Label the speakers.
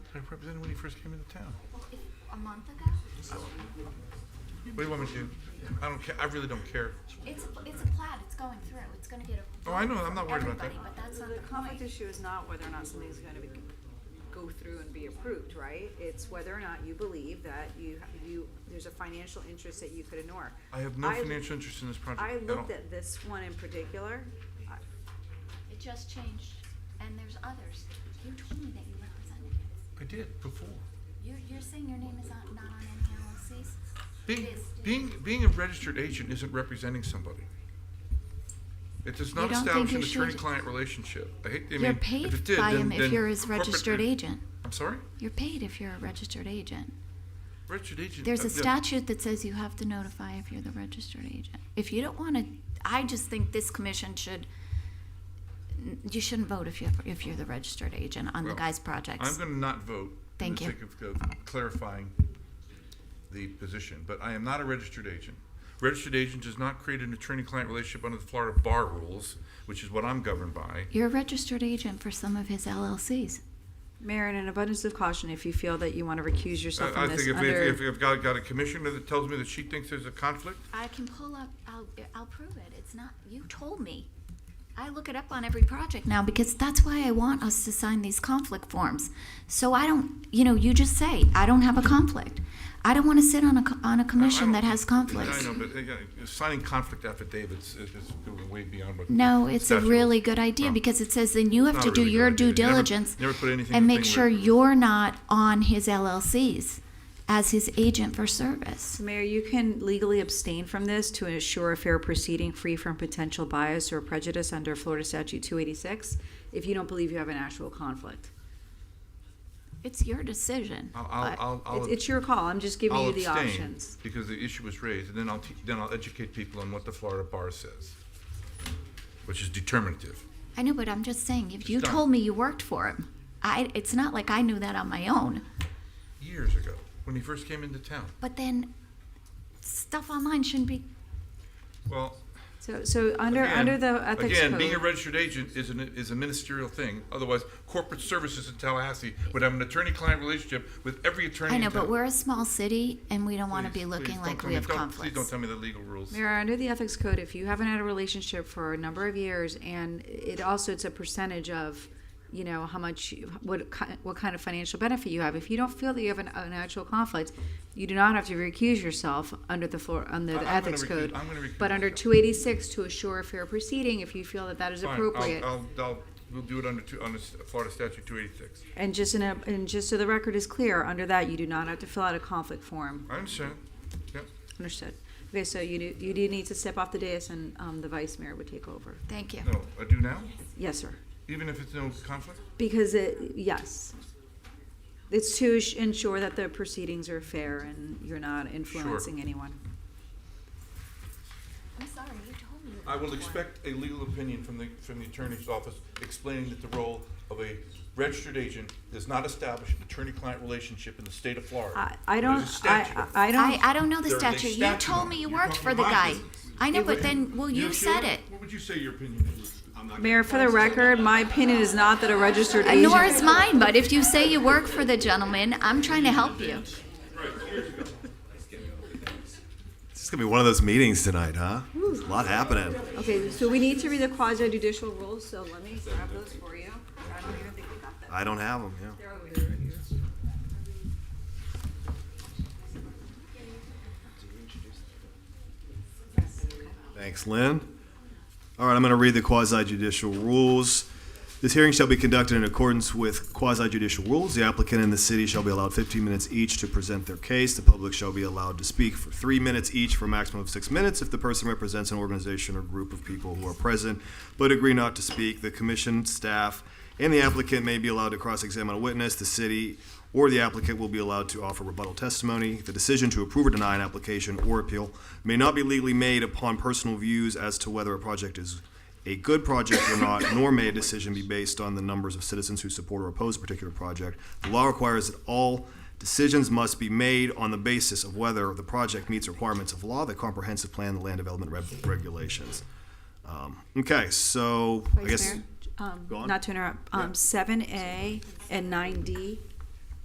Speaker 1: I represented when he first came into town.
Speaker 2: Well, if, a month ago?
Speaker 1: What do you want me to do? I don't care, I really don't care.
Speaker 2: It's, a- it's a plaid, it's going through, it's gonna get a.
Speaker 1: Oh, I know, I'm not worried about that.
Speaker 2: Everybody, but that's not
Speaker 3: The
Speaker 2: the
Speaker 3: conflict
Speaker 2: point.
Speaker 3: issue is not whether or not something's gonna be, go through and be approved, right? It's whether or not you believe that you, you, there's a financial interest that you could ignore.
Speaker 1: I have no financial interest in this project
Speaker 3: I
Speaker 1: at all.
Speaker 3: looked at this one in particular, I-
Speaker 2: It just changed, and there's others. You told me that you represented it.
Speaker 1: I did, before.
Speaker 2: You're, you're saying your name is on- not on any LLCs?
Speaker 1: Being,
Speaker 2: It is.
Speaker 1: being, being a registered agent isn't representing somebody. It does not
Speaker 4: don't think
Speaker 1: establish
Speaker 4: you
Speaker 1: an
Speaker 4: should-
Speaker 1: attorney-client relationship. I hate, I mean,
Speaker 4: You're
Speaker 1: if it
Speaker 4: paid
Speaker 1: did,
Speaker 4: by
Speaker 1: then,
Speaker 4: him
Speaker 1: then
Speaker 4: if you're his
Speaker 1: corporate-
Speaker 4: registered agent.
Speaker 1: I'm sorry?
Speaker 4: You're paid if you're a registered agent.
Speaker 1: Registered agent.
Speaker 4: There's
Speaker 1: uh,
Speaker 4: a
Speaker 1: yeah.
Speaker 4: statute that says you have to notify if you're the registered agent. If you don't want to, I just think this commission should, n- you shouldn't vote if you, if you're the registered agent on the
Speaker 1: Well,
Speaker 4: guy's projects.
Speaker 1: I'm gonna not vote.
Speaker 4: Thank you.
Speaker 1: In the sake of- of clarifying the position, but I am not a registered agent. Registered agent does not create an attorney-client relationship under the Florida bar rules, which is what I'm governed by.
Speaker 4: You're a registered agent for some of his LLCs.
Speaker 3: Mayor, in an abundance of caution, if you feel that you wanna recuse yourself
Speaker 1: I I
Speaker 3: from
Speaker 1: think
Speaker 3: this
Speaker 1: if, if,
Speaker 3: under,
Speaker 1: if I've got, got a commissioner that tells me that she thinks there's a conflict,
Speaker 4: I can pull up, I'll, I'll prove it. It's not, you told me. I look it up on every project now because that's why I want us to sign these conflict forms. So I don't, you know, you just say, I don't have a conflict. I don't want to sit on a, co- on a commission
Speaker 1: I
Speaker 4: that
Speaker 1: don't-
Speaker 4: has conflicts.
Speaker 1: I know, but uh, yeah, signing conflict affidavits is, is going way beyond what.
Speaker 4: No, it's a
Speaker 1: statute
Speaker 4: really
Speaker 1: is.
Speaker 4: good idea
Speaker 1: Well,
Speaker 4: because it says then you have
Speaker 1: not
Speaker 4: to
Speaker 1: a
Speaker 4: do
Speaker 1: really
Speaker 4: your
Speaker 1: good
Speaker 4: due
Speaker 1: idea. Never-
Speaker 4: diligence
Speaker 1: never put anything in
Speaker 4: and
Speaker 1: the
Speaker 4: make
Speaker 1: thing
Speaker 4: sure
Speaker 1: where-
Speaker 4: you're not on his LLCs as his agent for service.
Speaker 3: Mayor, you can legally abstain from this to ensure a fair proceeding free from potential bias or prejudice under Florida statute two eighty-six, if you don't believe you have an actual conflict.
Speaker 4: It's your decision.
Speaker 1: I'll, I'll,
Speaker 3: But
Speaker 1: I'll. I'll
Speaker 3: it's- It's your call, I'm just giving
Speaker 1: I'll
Speaker 3: you the
Speaker 1: abstain
Speaker 3: options.
Speaker 1: Because the issue was raised, and then I'll, te- then I'll educate people on what the Florida bar says, which is determinative.
Speaker 4: I know, but I'm just saying, if you
Speaker 1: Stop.
Speaker 4: told me you worked for him, I, it's not like I knew that on my own.
Speaker 1: Years ago, when he first came into town.
Speaker 4: But then stuff online shouldn't be,
Speaker 1: Well,
Speaker 3: So, so under,
Speaker 1: again-
Speaker 3: under the ethics
Speaker 1: Again, being a
Speaker 3: code,
Speaker 1: registered agent is an, is a ministerial thing. Otherwise, corporate services in Tallahassee would have an attorney-client relationship with every attorney
Speaker 4: I
Speaker 1: in
Speaker 4: know, but
Speaker 1: town.
Speaker 4: we're a small city and we don't want to
Speaker 1: Please,
Speaker 4: be
Speaker 1: please
Speaker 4: looking
Speaker 1: don't
Speaker 4: like
Speaker 1: tell
Speaker 4: we
Speaker 1: me-
Speaker 4: have
Speaker 1: don't-
Speaker 4: conflicts.
Speaker 1: Please don't tell me the legal rules.
Speaker 3: Mayor, under the ethics code, if you haven't had a relationship for a number of years and it also, it's a percentage of, you know, how much, you- what, ki- what kind of financial benefit you have. If you don't feel that you have an, an actual conflict, you do not have to recuse yourself under the floor,
Speaker 1: I-
Speaker 3: under the
Speaker 1: I'm gonna
Speaker 3: ethics
Speaker 1: recuse-
Speaker 3: code.
Speaker 1: I'm gonna recuse
Speaker 3: But under
Speaker 1: myself.
Speaker 3: two eighty-six to assure a fair proceeding, if you feel that that is
Speaker 1: Fine, I'll-
Speaker 3: appropriate.
Speaker 1: I'll, I'll, we'll do it under two, under s- Florida statute two eighty-six.
Speaker 3: And just in a, and just so the record is clear, under that, you do not have to fill out a conflict form.
Speaker 1: I understand. Yep.
Speaker 3: Understood. Okay, so you do, you do need to step off the dais and um, the vice mayor would take over.
Speaker 4: Thank you.
Speaker 1: No, I do now,
Speaker 3: Yes, sir.
Speaker 1: even if it's no conflict?
Speaker 3: Because it, yes. It's to ins- ensure that the proceedings are fair and you're not influencing anyone.
Speaker 2: I'm sorry, you told me. you
Speaker 1: I will
Speaker 2: worked for him.
Speaker 1: expect a legal opinion from the, from the attorney's office explaining that the role of a registered agent does not establish an attorney-client relationship in the state of Florida.
Speaker 3: I, I don't,
Speaker 1: There's a statute
Speaker 3: I,
Speaker 1: on it.
Speaker 3: I I
Speaker 4: I,
Speaker 3: don't,
Speaker 4: I don't know the
Speaker 1: There is a
Speaker 4: statute. You
Speaker 1: statute on
Speaker 4: told
Speaker 1: it.
Speaker 4: me you
Speaker 1: You're
Speaker 4: worked
Speaker 1: talking
Speaker 4: for the
Speaker 1: my
Speaker 4: guy.
Speaker 1: business.
Speaker 4: I know, but then, well,
Speaker 1: Sheila,
Speaker 4: you said it.
Speaker 1: What would you say your opinion is?
Speaker 3: Mayor, for the record, my opinion is not that a registered
Speaker 4: Uh, Nor
Speaker 3: agent.
Speaker 4: is mine, but if you say you work for the gentleman, I'm trying to help you.
Speaker 5: This is gonna be one of those meetings tonight, huh? There's a lot happening.
Speaker 3: Okay, so we need to read the quasi judicial rules, so let me grab those for you. I don't even think we got them.
Speaker 5: I don't have them. Yeah.
Speaker 3: They're over there right here.
Speaker 5: Thanks, Lynn. All right, I'm going to read the quasi judicial rules. This hearing shall be conducted in accordance with quasi judicial rules. The applicant and the city shall be allowed 15 minutes each to present their case. The public shall be allowed to speak for three minutes each for a maximum of six minutes if the person represents an organization or group of people who are present but agree not to speak. The commission, staff, and the applicant may be allowed to cross examine a witness. The city or the applicant will be allowed to offer rebuttal testimony. The decision to approve or deny an application or appeal may not be legally made upon personal views as to whether a project is a good project or not, nor may a decision be based on the numbers of citizens who support or oppose a particular project. The law requires that all decisions must be made on the basis of whether the project meets requirements of law, the comprehensive plan, the land development reg- regulations. Um, Okay, so I
Speaker 3: Vice
Speaker 5: guess.
Speaker 3: Mayor, um,
Speaker 5: Go on.
Speaker 3: Not to interrupt, um, seven A and nine D